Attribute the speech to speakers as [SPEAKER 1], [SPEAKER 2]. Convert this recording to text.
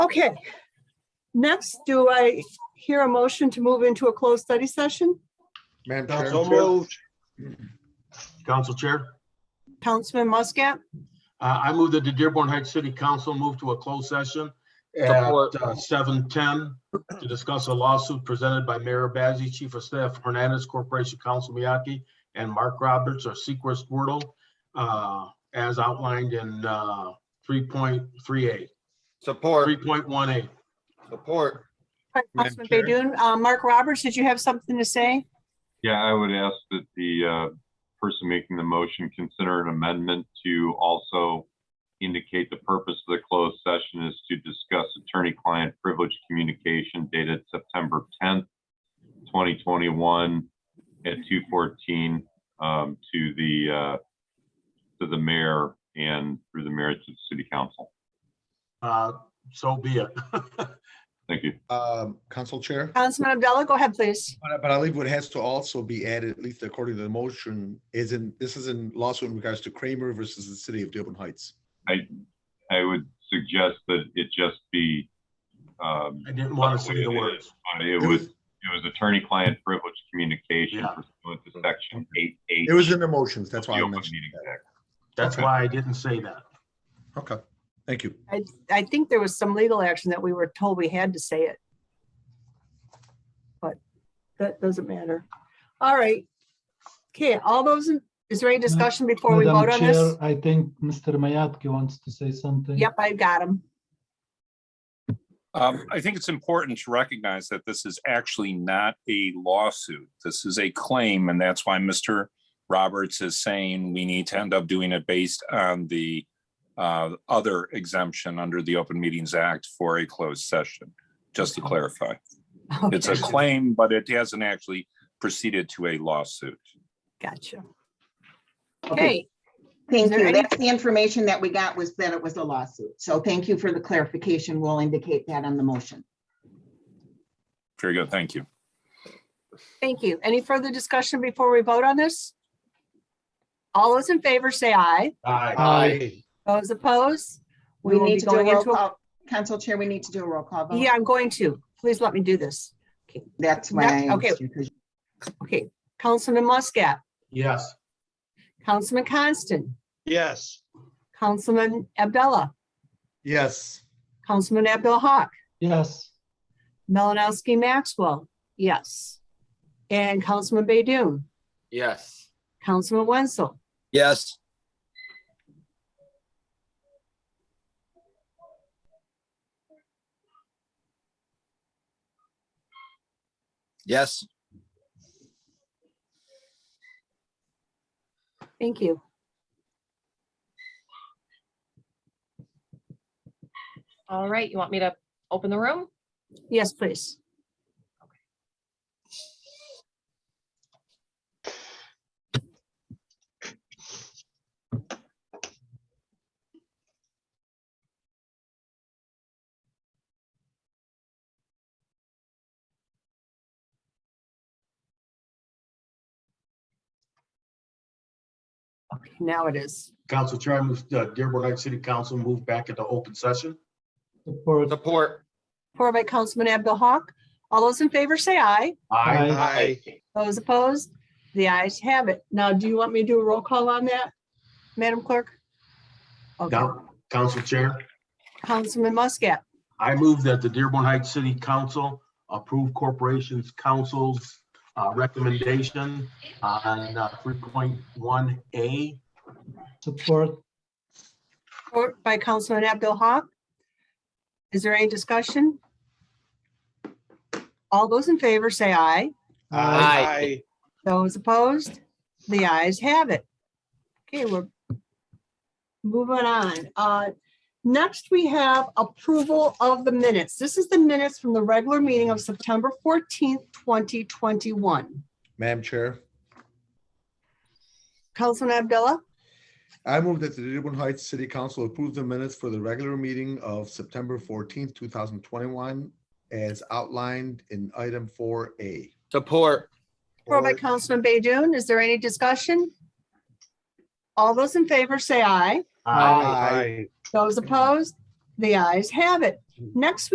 [SPEAKER 1] Okay. Next, do I hear a motion to move into a closed study session?
[SPEAKER 2] Madam
[SPEAKER 3] So
[SPEAKER 2] Chair,
[SPEAKER 3] moved. Council Chair,
[SPEAKER 1] Councilman Muscat?
[SPEAKER 3] uh, I move that the Dearborn Heights City Council move to a closed session at uh,
[SPEAKER 4] Support.
[SPEAKER 3] seven ten to discuss a lawsuit presented by Mayor Bazey, Chief of Staff Hernandez Corporation Council Miyake, and Mark Roberts or Sequest Wordle, uh, as outlined in, uh, three point three eight, three
[SPEAKER 4] Support,
[SPEAKER 3] point one eight.
[SPEAKER 4] support.
[SPEAKER 1] Councilman Baydun, Uh, Mark Roberts, did you have something to say?
[SPEAKER 5] Yeah, I would ask that the uh, person making the motion consider an amendment to also indicate the purpose of the closed session is to discuss attorney-client privilege communication dated September 10th, 2021 at 2:14 um, to the, uh, to the mayor and through the mayor to the city council.
[SPEAKER 3] Uh, so be it.
[SPEAKER 5] Thank you.
[SPEAKER 2] um, Council Chair,
[SPEAKER 1] Councilman Abdullah, go ahead, please.
[SPEAKER 2] but but I believe what has to also be added, at least according to the motion, is in, this is in lawsuit in regards to Kramer versus the city of Dearborn Heights.
[SPEAKER 5] I would suggest that it just be, um,
[SPEAKER 3] I didn't want to say the words.
[SPEAKER 5] it was It was attorney-client privilege communication
[SPEAKER 3] Yeah.
[SPEAKER 5] pursuant to section eight H.
[SPEAKER 2] It was in the motions, that's why I mentioned
[SPEAKER 5] Meeting
[SPEAKER 2] that.
[SPEAKER 5] Act.
[SPEAKER 3] That's why I didn't say that.
[SPEAKER 2] Okay, thank you.
[SPEAKER 1] I think there was some legal action that we were told we had to say it. But that doesn't matter. All right. Okay, all those, in- is there any discussion before we
[SPEAKER 6] Madam
[SPEAKER 1] vote on
[SPEAKER 6] Chair,
[SPEAKER 1] this?
[SPEAKER 6] I think Mr. Mayatki wants to say something.
[SPEAKER 1] Yep, I got him.
[SPEAKER 7] Um, I think it's important to recognize that this is actually not a lawsuit. This is a claim, and that's why Mr. Roberts is saying we need to end up doing it based on the uh, other exemption under the Open Meetings Act for a closed session, just to clarify. It's a
[SPEAKER 1] Okay,
[SPEAKER 7] claim, but it hasn't actually proceeded to a lawsuit.
[SPEAKER 1] Gotcha. Okay,
[SPEAKER 8] Thank
[SPEAKER 1] there
[SPEAKER 8] you.
[SPEAKER 1] any-
[SPEAKER 8] That's the information that we got was that it was a lawsuit. So thank you for the clarification. We'll indicate that on the motion.
[SPEAKER 7] Very good, thank you.
[SPEAKER 1] thank you. Any further discussion before we vote on this? All those in favor say aye.
[SPEAKER 3] Aye.
[SPEAKER 6] Aye.
[SPEAKER 1] Those opposed?
[SPEAKER 8] We
[SPEAKER 1] will be
[SPEAKER 8] need to do a
[SPEAKER 1] going
[SPEAKER 8] roll
[SPEAKER 1] into
[SPEAKER 8] call. Council Chair, we need to do a roll call vote.
[SPEAKER 1] Yeah, I'm going to. Please let me do this.
[SPEAKER 8] That's
[SPEAKER 1] Yeah,
[SPEAKER 8] why. I
[SPEAKER 1] okay.
[SPEAKER 8] asked you, 'cause
[SPEAKER 1] Okay, Councilman Muscat,
[SPEAKER 3] Yes.
[SPEAKER 1] Councilman Constant,
[SPEAKER 3] Yes.
[SPEAKER 1] Councilman Abdullah,
[SPEAKER 2] Yes.
[SPEAKER 1] Councilman Abdul Hawk,
[SPEAKER 6] Yes.
[SPEAKER 1] Melanowski Maxwell, yes. And Councilman Baydun,
[SPEAKER 4] Yes.
[SPEAKER 1] Councilman Wenzel,
[SPEAKER 4] Yes. Yes.
[SPEAKER 1] thank you.
[SPEAKER 9] All right, you want me to open the room?
[SPEAKER 1] Yes, please. Okay, now it is.
[SPEAKER 3] Council Chair, I move, uh, Dearborn Heights City Council move back into open session.
[SPEAKER 6] Support.
[SPEAKER 4] Support.
[SPEAKER 1] Four by Councilman Abdul Hawk. All those in favor say aye.
[SPEAKER 6] Aye.
[SPEAKER 1] Those opposed? The ayes have it. Now, do you want me to do a roll call on that, Madam Clerk? Okay,
[SPEAKER 3] Now, Council Chair,
[SPEAKER 1] Councilman Muscat,
[SPEAKER 3] I move that the Dearborn Heights City Council approve Corporations Council's uh, recommendation on uh, three point one A.
[SPEAKER 6] Support.
[SPEAKER 1] support by Councilman Abdul Hawk. Is there any discussion? All those in favor say aye.
[SPEAKER 4] Aye.
[SPEAKER 1] Those opposed? The ayes have it. Okay, we're moving on. Uh, Next, we have approval of the minutes. This is the minutes from the regular meeting of September 14th, 2021.
[SPEAKER 2] Madam Chair,
[SPEAKER 1] Councilman Abdullah,
[SPEAKER 2] I move that the Dearborn Heights City Council approve the minutes for the regular meeting of September fourteenth, two thousand twenty-one as outlined in item four A.
[SPEAKER 4] Support.
[SPEAKER 1] or by Councilman Baydun, is there any discussion? All those in favor say aye.
[SPEAKER 3] Aye.
[SPEAKER 2] Aye.
[SPEAKER 1] Those opposed? The ayes have it. Next